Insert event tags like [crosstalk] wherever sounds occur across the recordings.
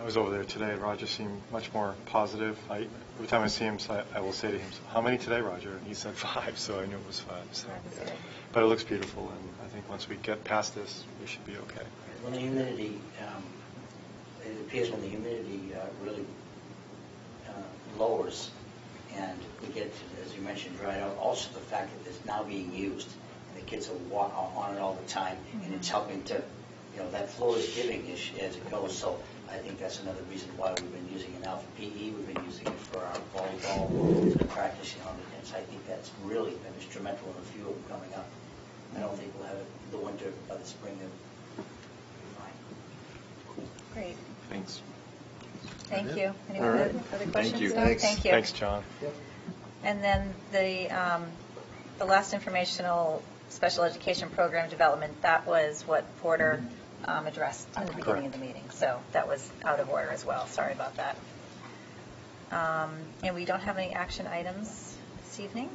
I was over there today, Roger seemed much more positive. I, every time I see him, so I I will say to him, how many today, Roger? And he said [laughs] five, so I knew it was five, so. But it looks beautiful, and I think once we get past this, we should be okay. When the humidity, um, it appears when the humidity uh, really uh, lowers and we get, to, as you mentioned, dried out, also the fact that it's now being used and the kids are walking on it all the time and it's helping to, you know, that flow is giving as, as it goes. So I think that's another reason why we've been using it now for PE, we've been using it for our volleyball practice, you know, and so I think that's really been instrumental in a few of them coming up. I don't think we'll have it the winter, by the spring, they'll be fine. Great, Thanks. thank you. Any All other right. other Thank questions? you. No? Thanks. Thank you. Thanks, John. And then the, um, the last informational special education program development, that was what Porter um, addressed in the beginning of the meeting. So that was out of order as well, sorry about that. Um, And we don't have any action items this evening.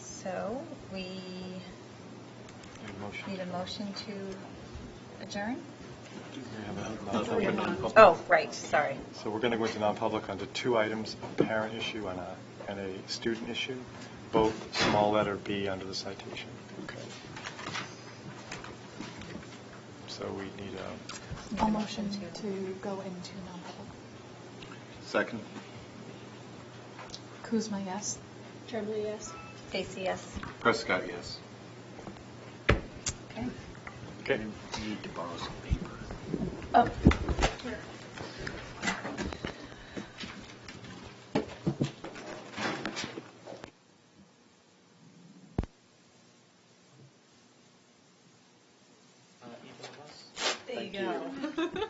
So we Need a motion? need a motion to adjourn? We have a Nothing. non-public. Oh, right, sorry. So we're going to go into non-public under two items, a parent issue and a, and a student issue, both small letter B under the citation. Okay. So we need a Need a I'll motion to go into non-public. Second. Kuzma, yes? Tremblay, yes. Stacy, yes? Prescott, yes. Okay. Okay. I Need to borrow some paper. Oh.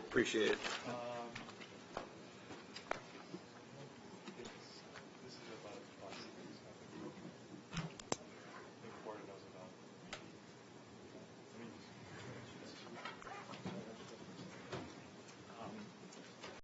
Appreciate it. [laughs] Uh,